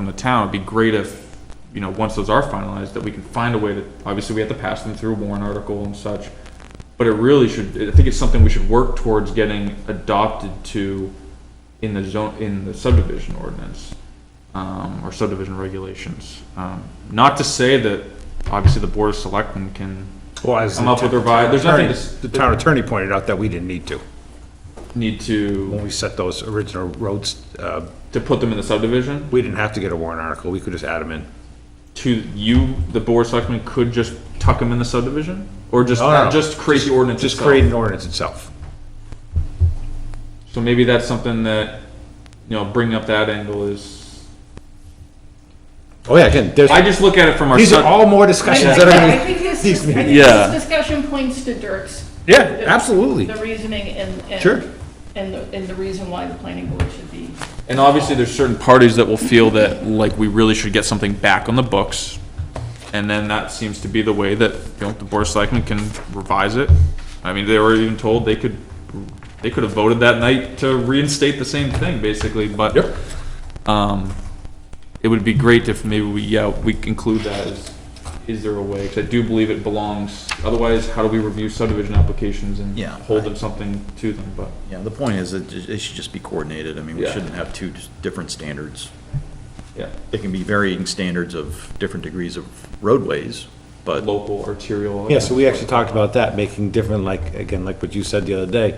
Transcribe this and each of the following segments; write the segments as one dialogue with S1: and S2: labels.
S1: from the town, it'd be great if, you know, once those are finalized, that we can find a way to, obviously, we have to pass them through a warrant article and such. But it really should, I think it's something we should work towards getting adopted to in the zone, in the subdivision ordinance, um, or subdivision regulations. Um, not to say that, obviously, the board of selectmen can
S2: Well, as
S1: come up with revised, there's nothing to s-
S2: The town attorney pointed out that we didn't need to,
S1: need to,
S2: when we set those original roads, uh,
S1: to put them in the subdivision.
S2: we didn't have to get a warrant article, we could just add them in.
S1: to you, the board of selectmen could just tuck them in the subdivision? Or just,
S2: Oh, No, no.
S1: just create the ordinance
S2: Just
S1: itself?
S2: create an ordinance itself.
S1: So maybe that's something that, you know, bringing up that angle is,
S2: Oh, yeah, again, there's,
S1: I just look at it from our.
S2: these are
S1: sub-
S2: all more
S3: I
S2: discussions
S3: think-
S2: that
S3: I
S2: are,
S3: think this,
S2: these
S3: dis- I think
S2: meetings.
S4: Yeah.
S3: this discussion points to Dirk's,
S2: yeah, absolutely.
S3: the reasoning and, and.
S2: Sure.
S3: And the, and the reason why the planning board should be.
S1: And obviously, there's certain parties that will feel that, like, we really should get something back on the books. And then that seems to be the way that, you know, the board of selectmen can revise it. I mean, they were even told they could, they could have voted that night to reinstate the same thing, basically, but.
S2: Yep.
S1: Um, it would be great if maybe we, yeah, we include that as, is there a way? Because I do believe it belongs, otherwise, how do we review subdivision applications and
S4: Yeah.
S1: hold them something to them, but.
S4: Yeah, the point is, that it it should just be coordinated. I mean, we
S1: Yeah.
S4: shouldn't have two dis- different standards.
S1: Yeah,
S4: There can be varying standards of different degrees of roadways, but
S1: local, arterial.
S5: Yeah, so we actually talked about that, making different, like, again, like what you said the other day,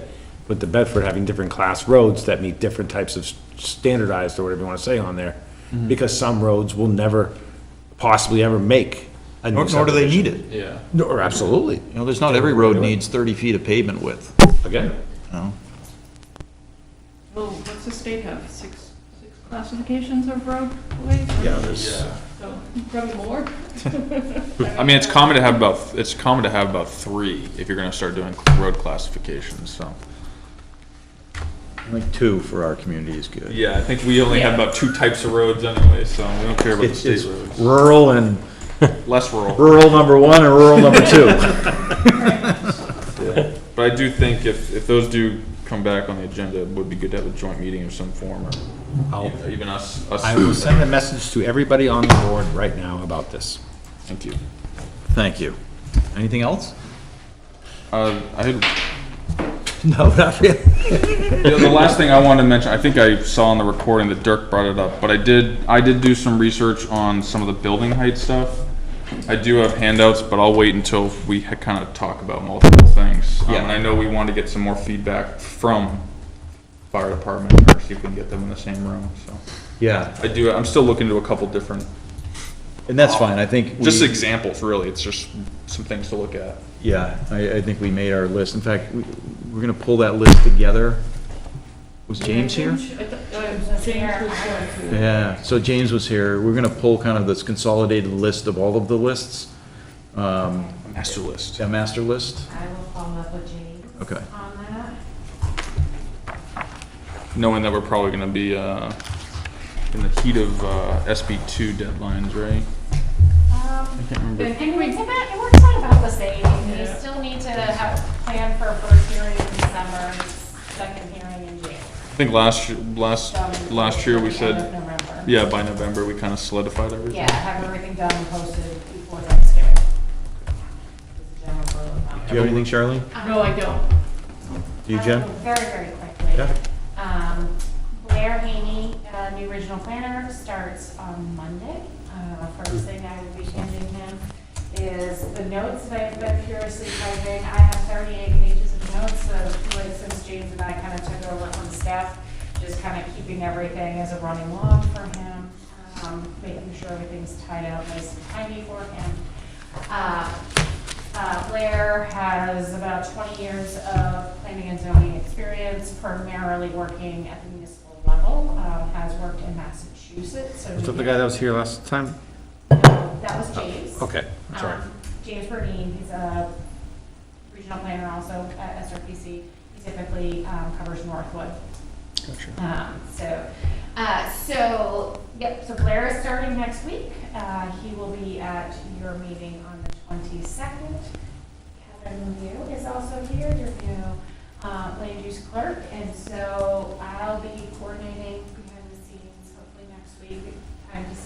S5: with the Bedford having different class roads that meet different types of standardized, or whatever you wanna say on there,
S4: Mm-hmm.
S5: because some roads will never possibly ever make a new
S4: nor nor do they
S5: subdivision.
S4: need it.
S1: Yeah.
S2: No, absolutely,
S4: You know, there's not every road needs 30 feet of pavement width,
S2: again.
S4: you know?
S3: Well, what's the state have, six, six classifications of roadways?
S4: Yeah, there's,
S3: So, probably more.
S1: I mean, it's common to have about, it's common to have about three if you're gonna start doing road classifications, so.
S4: like, two for our community is good.
S1: Yeah, I think we only have
S3: Yeah.
S1: about two types of roads anyway, so we don't care about the
S4: It's
S1: state
S4: it's
S1: roads.
S5: Rural and,
S1: Less rural.
S5: rural number one and rural number two.
S1: But I do think if, if those do come back on the agenda, it would be good to have a joint meeting of some form or
S2: I'll-
S1: even us,
S2: I will
S1: us.
S2: send a message to everybody on the board right now about this.
S1: Thank you.
S4: Thank you. Anything else?
S1: Uh, I had
S2: No, not really.
S1: The, the last thing I wanted to mention, I think I saw on the recording that Dirk brought it up, but I did, I did do some research on some of the building height stuff. I do have handouts, but I'll wait until we kind of talk about multiple things. Um,
S4: Yeah.
S1: And I know we want to get some more feedback from fire department, or see if we can get them in the same room, so.
S4: Yeah.
S1: I do, I'm still looking to a couple different,
S4: And that's fine, I think. we-
S1: just examples, really, it's just some things to look at.
S4: Yeah, I, I think we made our list. In fact, we- we're going to pull that list together. Was James here?
S3: I thought- uh, James was going to.
S4: Yeah, so James was here. We're gonna pull kind of this consolidated list of all of the lists, um,
S1: Master list.
S4: a master list.
S6: I will follow up with James
S4: Okay.
S6: on that.
S1: knowing that we're probably going to be uh, in the heat of uh, SB2 deadlines, right?
S6: Um,
S1: Can't remember.
S6: And it works out, it works out about the same. You
S3: Yeah.
S6: still need to have a plan for first hearing in December, second hearing in January.
S1: I think last year, last
S6: So,
S1: last year we
S6: at the end of
S1: said,
S6: November.
S1: yeah, by November we kind of solidified everything.
S6: Yeah, have everything done and posted before Thanksgiving. Is the general rule of thumb.
S4: Do you have anything, Charlie?
S3: No, I don't.
S4: Do you,
S6: Um,
S4: Jen?
S6: Very, very quickly.
S4: Yeah.
S6: Um, Blair Haney, uh, new regional planner, starts on Monday. Uh, First thing I will be handing him is the notes that I've been furiously typing. I have 38 pages of notes, so like since James and I kind of took over on staff, just kind of keeping everything as a running log for him, um, making sure everything's tied out nice and tidy for him. Uh, uh, Blair has about 20 years of planning and zoning experience, primarily working at the municipal level, um, has worked in Massachusetts, so.
S2: Was
S6: he-
S2: that the guy that was here last time?
S6: No, that was James.
S2: Okay, I'm sorry.
S6: Um, James Burdine, he's a regional planner also at SRPC. He typically um, covers Northwood. Um, So, uh, so, yep, so Blair is starting next week. Uh, He will be at your meeting on the 22nd. Kevin Liu is also here, your new uh, land use clerk. And so I'll be coordinating behind the scenes hopefully next week. I'm just